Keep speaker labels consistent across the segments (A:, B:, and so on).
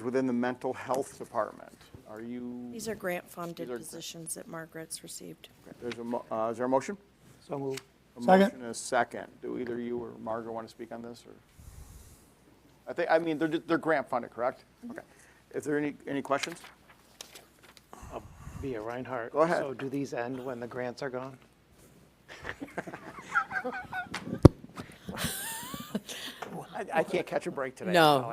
A: within the mental health department. Are you,
B: These are grant-funded
A: These are-
B: positions that Margaret's received.
A: there's a, mo- uh, is there a motion?
C: So move.
A: A
D: Second.
A: motion and a second. Do either you or Margaret want to speak on this, or? I think, I mean, they're, they're grant funded, correct? Okay. Is there any, any questions?
C: Via Reinhardt.
A: Go ahead.
C: So do these end when the grants are gone?
A: I, I can't catch a break today.
E: No.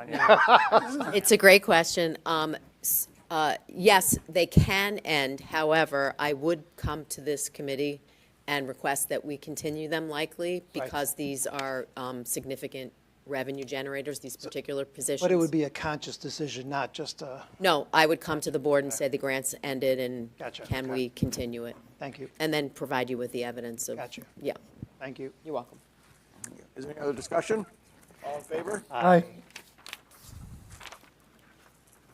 E: It's a great question. Um, s- uh, Yes, they can end. However, I would come to this committee and request that we continue them likely because these are um, significant revenue generators, these particular positions.
C: But it would be a conscious decision, not just a,
E: No, I would come to the board and say the grants ended and
C: Gotcha.
E: can
C: Okay.
E: we continue it?
C: thank you,
E: And then provide you with the evidence of.
C: Gotcha.
E: Yeah,
C: thank you.
E: you're welcome.
A: Is there any other discussion? All in favor?
D: Aye.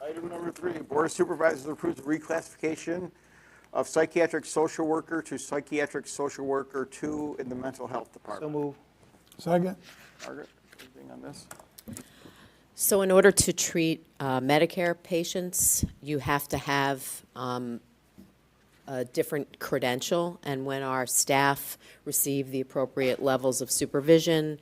A: Item number three, Board of Supervisors approves reclassification of psychiatric social worker to psychiatric social worker two in the mental health
C: So
A: department.
C: move.
D: Second.
A: Margaret, anything on this?
E: So in order to treat uh, Medicare patients, you have to have um, a different credential, and when our staff receive the appropriate levels of supervision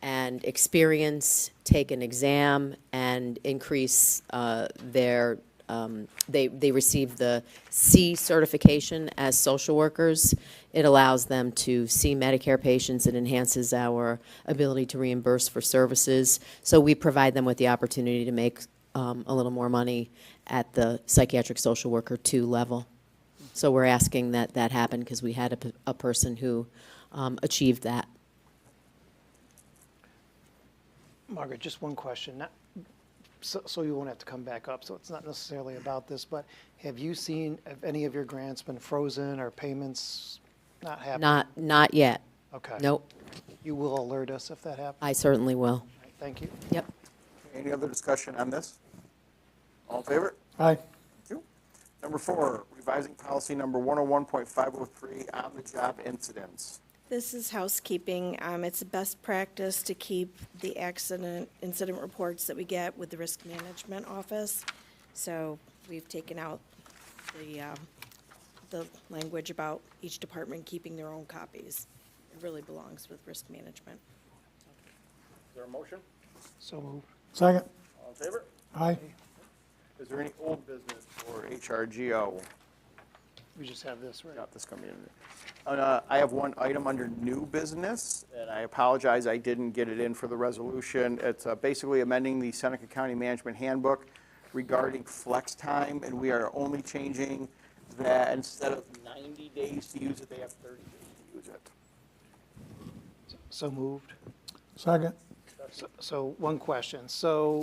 E: and experience, take an exam, and increase uh, their, um, they, they receive the C certification as social workers, it allows them to see Medicare patients, it enhances our ability to reimburse for services, so we provide them with the opportunity to make um, a little more money at the psychiatric social worker two level. So we're asking that that happen because we had a, p- a person who um, achieved that.
C: Margaret, just one question. Not- So, so you won't have to come back up, so it's not necessarily about this, but have you seen, have any of your grants been frozen or payments not happening?
E: Not, not yet.
C: Okay.
E: Nope,
C: You will alert us if that happens?
E: I certainly will.
C: Thank you.
E: Yep.
A: Any other discussion on this? All in favor?
D: Aye.
A: Thank you. Number four, revising policy number 101.503, on-the-job incidents.
B: This is housekeeping. Um, It's a best practice to keep the accident, incident reports that we get with the Risk Management Office. So we've taken out the, um, the language about each department keeping their own copies. It really belongs with Risk Management.
A: Is there a motion?
C: So move.
D: Second.
A: All in favor?
D: Aye.
A: Is there any old business for HRGO?
C: We just have this, right?
A: Got this coming in. Uh, I have one item under new business, and I apologize, I didn't get it in for the resolution. It's uh, basically amending the Seneca County Management Handbook regarding flex time, and we are only changing that instead of 90 days to use it, they have 30 days to use it.
C: So moved.
D: Second.
C: So- So, one question. So,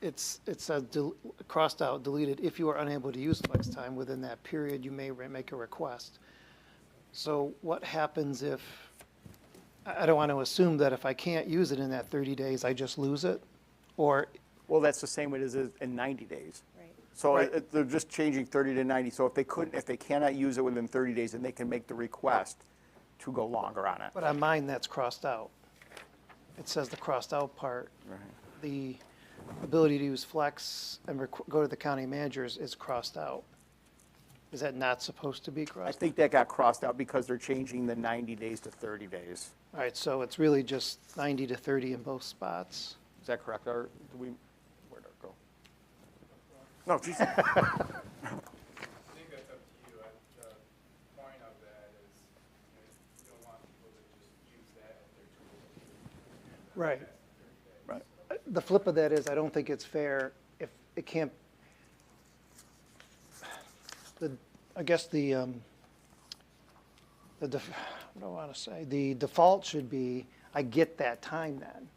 C: it's, it says, del- crossed out, deleted, if you are unable to use flex time within that period, you may re- make a request. So what happens if, I, I don't want to assume that if I can't use it in that thirty days, I just lose it? Or,
A: Well, that's the same way it is in 90 days.
B: Right.
A: So uh,
C: Right.
A: it- they're just changing 30 to 90. So if they couldn't, if they cannot use it within 30 days, then they can make the request to go longer on it.
C: but on mine, that's crossed out. It says the crossed out part. The ability to use flex and requ- go to the county managers is crossed out. Is that not supposed to be crossed
A: I
C: out?
A: think that got crossed out because they're changing the 90 days to 30 days.
C: All right, so it's really just 90 to 30 in both spots.
A: Is that correct, Art? Do we, where'd Art go? No, geez.
F: I think that's up to you. I, the point of that is, you know, you don't want people to just use that as their tool.
C: Right.
A: Right.
C: The flip of that is, I don't think it's fair if it can't, the, I guess the, um, the, def- what do I want to say? The default should be, I get that time then.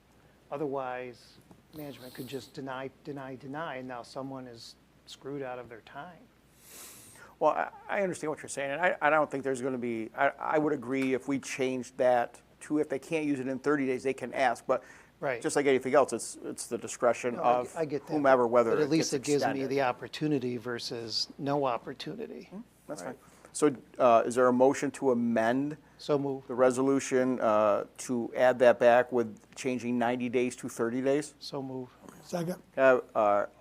C: Otherwise, management could just deny, deny, deny, and now someone is screwed out of their time.
A: Well, I- I understand what you're saying, and I, I don't think there's going to be, I, I would agree if we changed that to if they can't use it in 30 days, they can ask, but
C: Right.
A: just like anything else, it's, it's the discretion
C: No, I
A: of
C: get- I get that,
A: whomever,
C: but-
A: whether
C: But
A: it
C: at least
A: gets
C: it gives me
A: extended. Hmm?
C: the opportunity versus no opportunity.
A: That's fine. So uh, is there a motion to amend
C: So move,
A: the resolution uh, to add that back with changing 90 days to 30 days?
C: so move.
A: Is
D: second.
A: Can I have, uh,